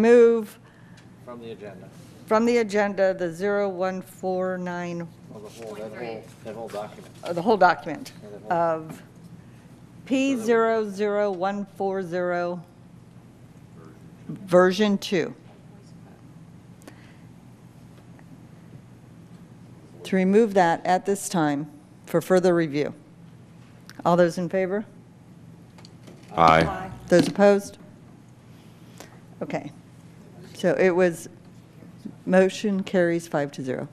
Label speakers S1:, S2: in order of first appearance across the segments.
S1: remove
S2: from the agenda,
S1: from the agenda the 0149,
S2: of the whole, that whole, that whole document.
S1: uh, the whole document of P00140, version 2. To remove that at this time for further review. All those in favor?
S3: Aye.
S1: Those opposed? Okay. So it was, motion carries five to zero.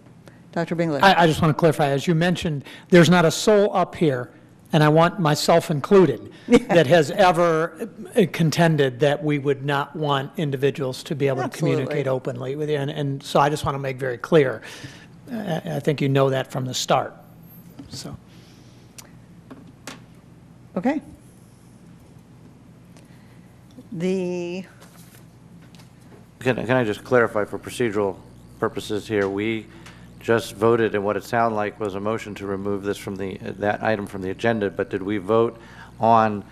S1: Dr. Bingley?
S4: I, I just want to clarify, as you mentioned, there's not a soul up here, and I want myself included, that has ever contended that we would not want individuals to be able to
S1: Absolutely.
S4: communicate openly with you. And, and so I just want to make very clear, I, I think you know that from the start, so.
S1: Okay. The,
S2: Can, can I just clarify for procedural purposes here? We just voted, and what it sounded like was a motion to remove this from the, that item from the agenda, but did we vote on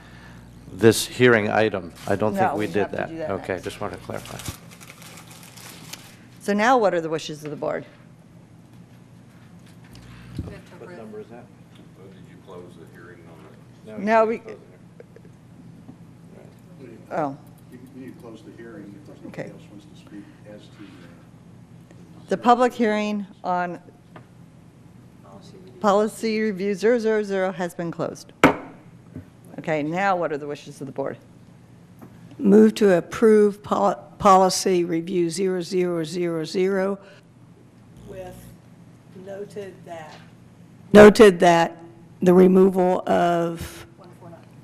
S2: this hearing item? I don't think
S1: No,
S2: we
S1: we
S2: did
S1: have to
S2: that.
S1: do that
S2: Okay,
S1: next.
S2: just wanted to clarify.
S1: so now what are the wishes of the board?
S2: What number is that?
S3: Did you close the hearing on it?
S1: No, we, oh,
S5: You you need to close the hearing if there's
S1: Okay.
S5: nobody else wants to speak as to uh,
S1: the public hearing on policy review 000 has been closed. Okay, now what are the wishes of the board?
S6: Move to approve pol- policy review 0000
S7: with noted that
S6: noted that the removal of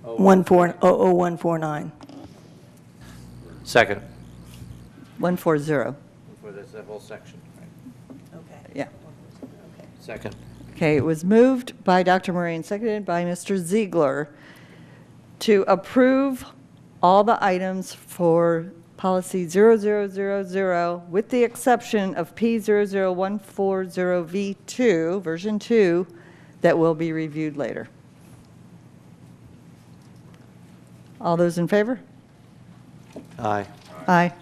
S2: Oh,
S6: 140149.
S2: Second.
S1: 140,
S2: For this, that whole section, right?
S1: yeah.
S2: Second.
S1: Okay, it was moved by Dr. Murray and seconded by Mr. Ziegler to approve all the items for policy 0000, with the exception of P00140V2, version 2, that will be reviewed later. All those in favor?
S2: Aye.
S1: Aye.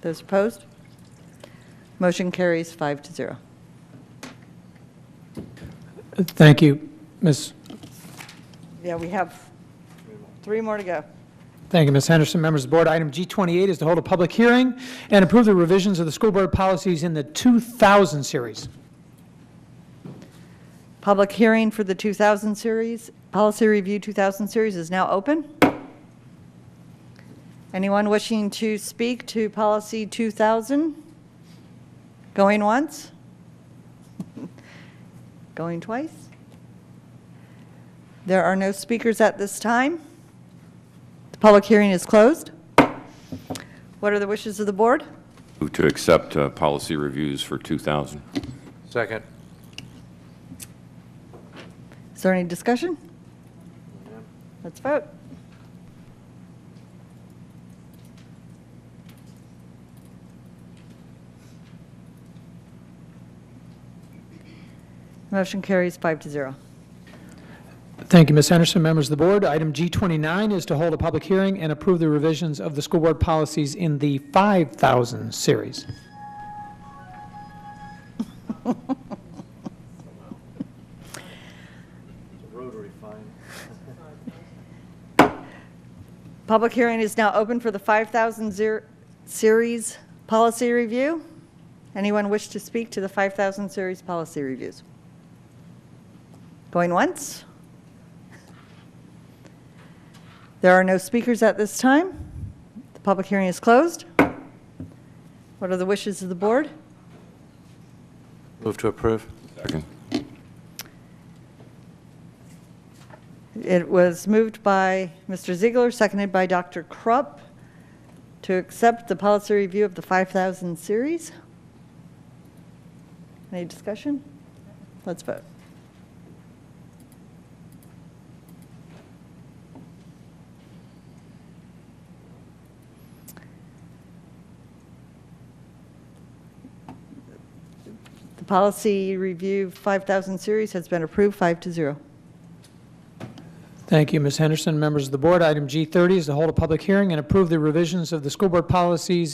S1: Those opposed? Motion carries five to zero.
S4: Thank you, Ms.,
S1: Yeah, we have three more to go.
S4: Thank you, Ms. Henderson. Members of the board, item G28 is to hold a public hearing and approve the revisions of the school board policies in the 2000 series.
S1: Public hearing for the 2000 series, Policy Review 2000 series is now open. Anyone wishing to speak to Policy 2000? Going once? Going twice? There are no speakers at this time. The public hearing is closed. What are the wishes of the board?
S3: Move to accept uh, policy reviews for 2000.
S2: Second.
S1: Is there any discussion? Let's vote. Motion carries five to zero.
S4: Thank you, Ms. Henderson. Members of the board, item G29 is to hold a public hearing and approve the revisions of the school board policies in the 5,000 series.
S2: Rotary fine.
S1: Public hearing is now open for the 5,000 zer- series policy review. Anyone wish to speak to the 5,000 series policy reviews? Going once? There are no speakers at this time. The public hearing is closed. What are the wishes of the board?
S2: Move to approve.
S3: Second.
S1: It was moved by Mr. Ziegler, seconded by Dr. Krupp, to accept the policy review of the 5,000 series. Any discussion? Let's vote. The policy review 5,000 series has been approved, five to zero.
S4: Thank you, Ms. Henderson. Members of the board, item G30 is to hold a public hearing and approve the revisions of the school board policies